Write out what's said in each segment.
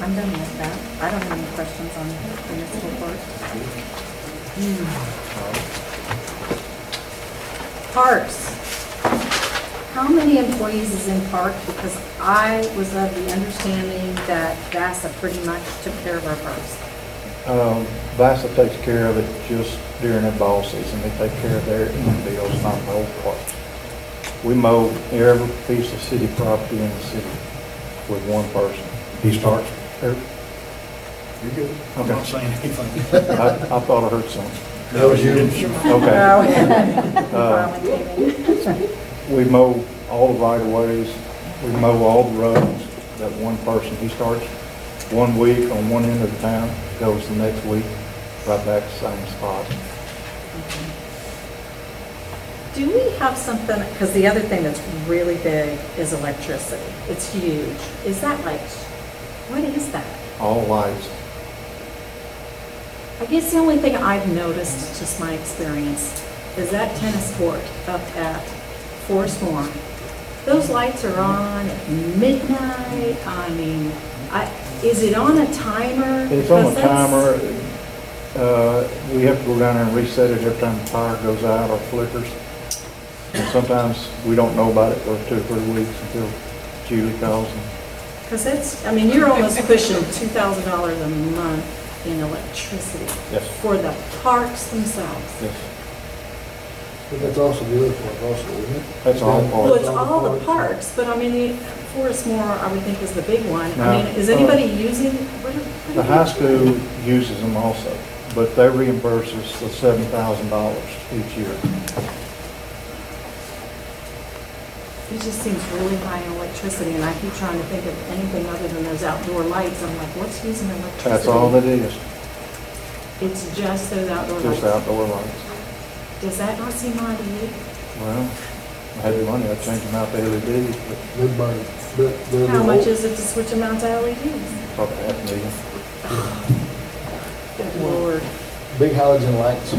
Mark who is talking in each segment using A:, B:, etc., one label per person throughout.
A: I'm done with that. I don't have any questions on municipal court. Parks. How many employees is in park? Because I was of the understanding that VASA pretty much took care of our parks.
B: Um, Vasa takes care of it just during the ball season. They take care of their end bills, not the whole part. We mow every piece of city property in the city with one person.
C: He starts.
B: Er,
C: You're good.
B: I'm not
C: saying anything.
B: I, I thought I heard something.
C: That was you.
B: Okay.
A: Finally came in.
B: We mow all the right of ways. We mow all the roads that one person, he starts one week on one end of the town, goes the next week, right back to the same spot.
A: Do we have something, because the other thing that's really big is electricity. It's huge. Is that like, what is that?
B: All lights,
A: I guess the only thing I've noticed, just my experience, is that tennis court up at Forest Lawn. Those lights are on at midnight, I mean, I, is it on a timer?
B: It's on
A: Because
B: a
A: that's-
B: timer. Uh, We have to go down there and reset it every time the fire goes out or flickers. And sometimes we don't know about it for two or three weeks until Julie calls and
A: Because it's, I mean, you're almost pushing two thousand dollars a month in electricity.
B: Yes.
A: For the parks themselves.
B: yes.
C: But that's also the other part also, isn't it?
B: That's all part.
A: Well, it's all the parks, but I mean, the Forest Moor, I would think, is the big one. I
B: Now,
A: mean, is
B: uh,
A: anybody using, what are- what are
B: The
A: they
B: high
A: doing?
B: school uses them also, but they reimburse us the seven thousand dollars each year.
A: It just seems really high in electricity, and I keep trying to think of anything other than those outdoor lights. I'm like, what's using electricity?
B: That's all that is,
A: It's just those outdoor lights.
B: just outdoor lights.
A: Does that not seem high to you?
B: Well, I had the money, I'd change them out to LED, but
C: Everybody, but they're.
A: How much is it to switch them out to E LEDs?
B: probably half a million.
A: Good lord.
C: Big halogen lights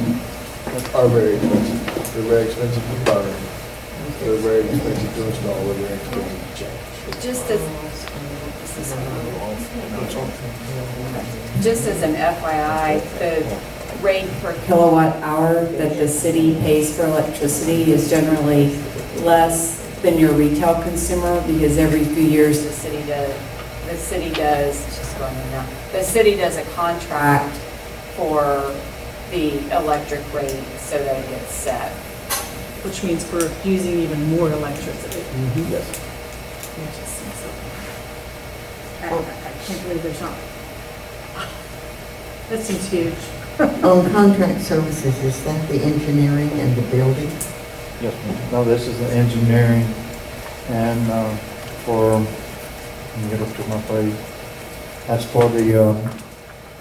C: are very expensive. They're very expensive to burn. They're very expensive to install, they're very expensive to change.
D: Just as, just as an FYI, the rate per kilowatt hour that the city pays for electricity is generally less than your retail consumer because every few years the city does, the city does, it's just going in now, the city does a contract for the electric rate so that it gets set.
A: Which means we're using even more electricity.
D: Mm-hmm.
B: Yes.
A: It just seems so- I
E: Oh.
A: I- I can't believe there's not. That seems huge.
E: On contract services, is that the engineering and the building?
B: Yes, ma'am. no, this is the engineering and uh, for, let me get up to my page. That's for the uh,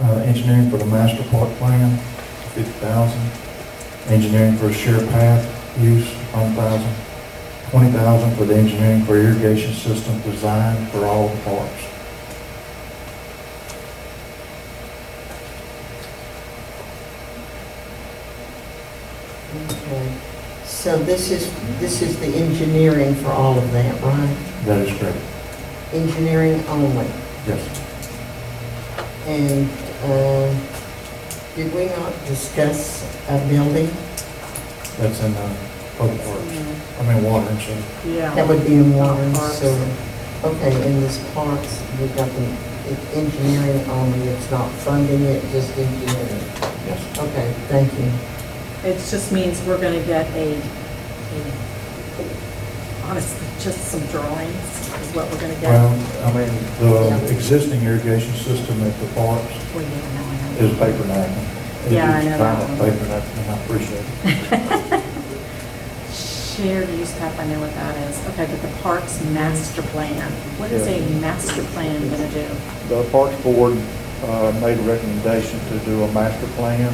B: uh, engineering for the master park plan, fifty thousand. Engineering for shared path use, one thousand. Twenty thousand for the engineering for irrigation system design for all the parks.
E: Okay. So this is, this is the engineering for all of that, right?
B: That is correct.
E: Engineering only.
B: Yes.
E: And um, did we not discuss a building?
B: That's in uh, public works, I mean water and sewer.
E: That
A: Yeah.
E: would be in water and
A: Parks.
E: sewer. Okay, in this parks, we've got the it's engineering only, it's not funding it, just engineering.
B: Yes.
E: Okay, thank you.
A: It just means we're going to get a, a- honestly, just some drawings is what we're going to
B: Well,
A: get.
B: I mean, the existing irrigation system at the parks
A: Well, yeah, no, I know.
B: is paper napkin.
A: Yeah, I know that
B: It's
A: one.
B: final Paper napkin, I appreciate it.
A: Shared use path, I know what that is. Okay, but the parks master plan. What is a master plan going to do?
B: The Parks Board uh, made a recommendation to do a master plan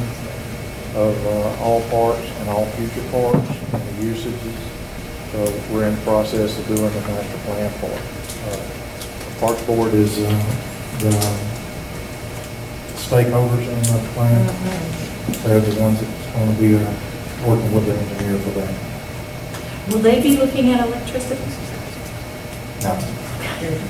B: of uh, all parks and all future parks and the usages. So we're in the process of doing the master plan for it. Uh, Parks Board is uh, the stakeholders in the plan.
A: Mm-hmm.
B: They're the ones that's going to be uh, working with the engineer for that.
A: Will they be looking at electricity?
B: Now,